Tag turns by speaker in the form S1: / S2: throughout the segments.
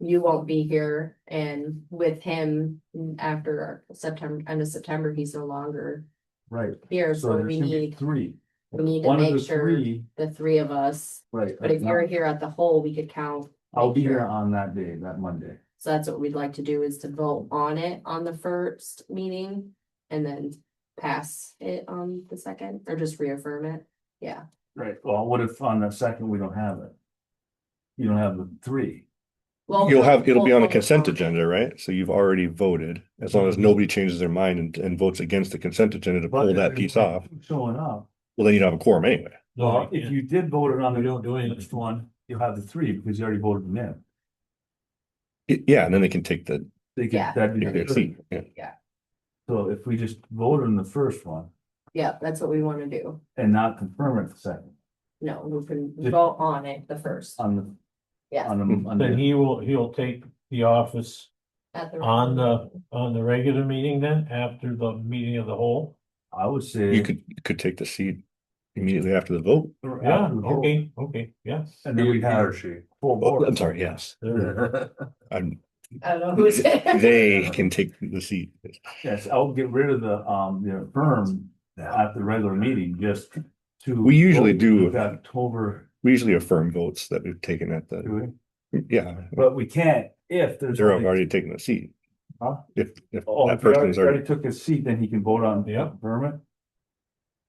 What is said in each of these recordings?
S1: you won't be here and with him after our September, end of September, he's no longer
S2: Right,
S1: here,
S2: so
S1: so
S2: there's
S1: we
S2: gonna be
S1: need
S2: three.
S1: we need to
S2: One of
S1: make
S2: the
S1: sure-
S2: three,
S1: the three of us.
S2: Right. uh,
S1: But if you're here at the whole, we could count.
S2: I'll
S1: like
S2: be
S1: your-
S2: here on that day, that Monday.
S1: So that's what we'd like to do is to vote on it on the first meeting and then pass it on the second or just reaffirm it. Yeah,
S2: Right. Well, what if on the second we don't have it? You don't have the three.
S1: well.
S3: You'll have, it'll be on a
S1: we'll-
S3: consent agenda, right? So you've already voted, as long as nobody changes their mind and, and votes against the consent agenda to
S2: But
S3: pull
S2: if
S3: that
S2: there's
S3: piece
S2: no
S3: off,
S2: Showing up,
S3: well, then you don't have a quorum anyway.
S2: well, if you did vote it on
S4: We don't
S2: the
S4: do anything.
S2: next one, you'll have the three because you already voted them in.
S3: Y- Yeah, and then they can take the,
S2: They could,
S1: Yeah.
S2: that'd be
S3: take their
S2: good.
S3: seat, yeah.
S2: So if we just vote on the first one
S1: Yeah, that's what we want to do.
S2: and not confirm it the second,
S1: No, we can
S2: Did-
S1: vote on it the first.
S2: on the,
S1: Yeah.
S2: on the, on
S4: Then
S2: the,
S4: he will, he'll take the office
S1: at the-
S4: on the, on the regular meeting then, after the meeting of the whole?
S2: I would say.
S3: You could, you could take the seat immediately after the vote.
S2: or
S4: Yeah,
S2: after the vote,
S4: okay, okay, yeah.
S2: And then we have full
S3: Oh,
S2: board.
S3: I'm sorry, yes. I'm,
S1: I don't know who's.
S3: they can take the seat.
S2: Yes, I'll get rid of the, um, the firm at the regular meeting, just to.
S3: We usually do.
S2: With October,
S3: We usually affirm votes that we've taken at the,
S2: do
S3: yeah,
S2: we? but we can't if there's.
S3: they're
S2: only-
S3: already taking the seat.
S2: Huh?
S3: If, if
S2: Oh,
S3: that
S2: if he already,
S3: person's already,
S2: already took his seat, then he can vote on.
S4: Yeah.
S2: Vermin,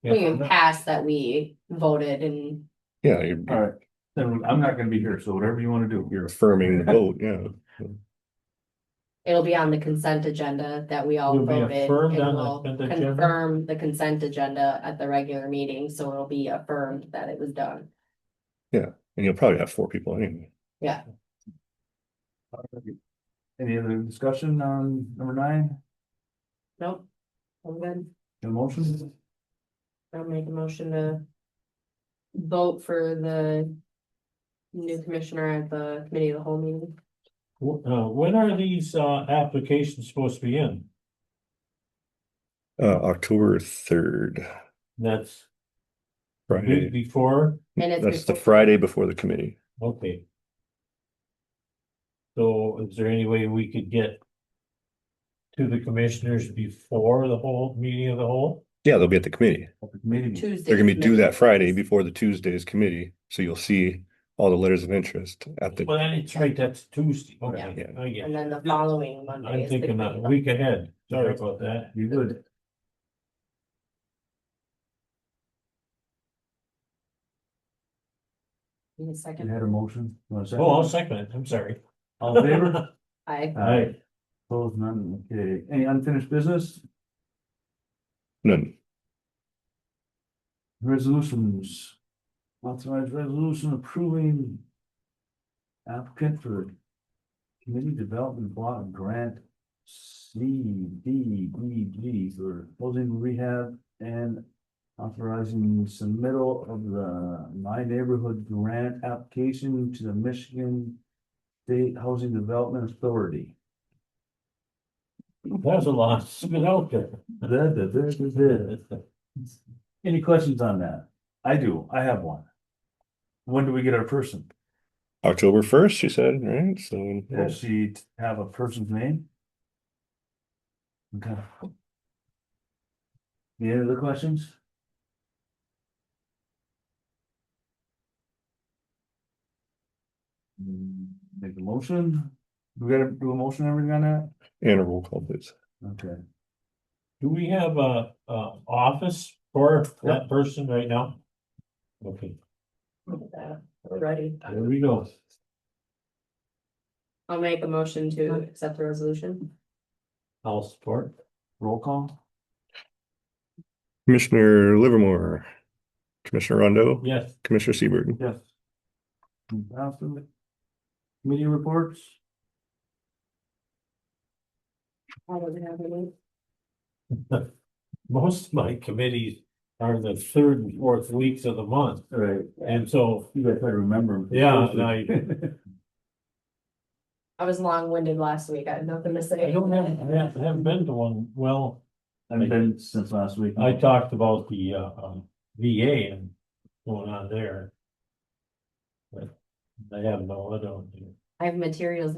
S1: We can
S4: Yeah.
S1: pass that we voted and
S3: yeah, you're,
S2: alright, then I'm not gonna be here, so whatever you wanna do.
S3: you're affirming the vote, yeah.
S1: it'll be on the consent agenda that we all
S4: It'll be
S1: voted.
S4: affirmed
S1: and
S4: on the
S1: we'll
S4: consent agenda?
S1: Confirm the consent agenda at the regular meeting, so it'll be affirmed that it was done.
S3: And you'll probably have four people anyway.
S2: Any other discussion on number nine,
S1: Nope. I'm good.
S2: the motion?
S1: I'll make a motion to vote for the new commissioner at the committee of the whole meeting.
S4: Wh- Uh, when are these, uh, applications supposed to be in?
S3: Uh, October third,
S4: That's be-
S3: Friday.
S4: before,
S1: And it's
S3: That's the
S1: before-
S3: Friday before the committee.
S4: okay. So is there any way we could get to the commissioners before the whole, meeting of the whole?
S3: Yeah, they'll be at the committee.
S2: At the committee,
S1: Tuesday.
S3: They're gonna be due that Friday before the Tuesday's committee, so you'll see all the letters of interest at the,
S4: Well, that's right, that's Tuesday, okay, I get it.
S1: And then the following Monday.
S4: I'm
S1: is the
S4: thinking
S1: committee
S4: a
S1: of the
S4: week ahead, sorry
S2: Right.
S4: about that.
S2: you good?
S1: Need a
S2: You
S1: second?
S2: had a motion? You want a
S4: Oh, I'll
S2: second?
S4: second it, I'm sorry.
S2: All in favor?
S1: I,
S4: Aye.
S2: Opposed, none, okay, any unfinished business,
S3: none.
S2: resolutions? Authorized resolution approving. Applicant for. Community Development Block Grant. C D E G for housing rehab and. Authorizing submittal of the My Neighborhood Grant application to the Michigan. State Housing Development Authority.
S4: There's a lot, it's been out there.
S2: Da, da, da, da, da. Any questions on that? I do, I have one. When do we get our person?
S3: October first, she said, right? So
S2: Does she t- have a person's name? Okay. Any other questions? Hmm, Make a motion, we gotta do a motion, everything on that?
S3: and a roll call, please.
S2: Okay,
S4: Do we have a, a office for that person right now? Okay,
S1: ready.
S4: there we go.
S1: I'll make a motion to accept the resolution.
S4: I'll support.
S2: roll call,
S3: Commissioner Livermore, Commissioner Rondo,
S4: Yes,
S3: Commissioner Seabird.
S2: yes. Absolutely. Committee reports?
S1: I don't have any.
S4: most of my committees are the third and fourth weeks of the month,
S2: All right.
S4: and so
S2: You guys try to remember. 'em.
S4: Yeah, no,
S1: I was long-winded last week. I had nothing to say.
S4: I don't have, I haven't- haven't been to one, well,
S2: I've been since last week.
S4: I talked about the, uh, um, VA and going on there. But I have no, I don't.
S1: I have materials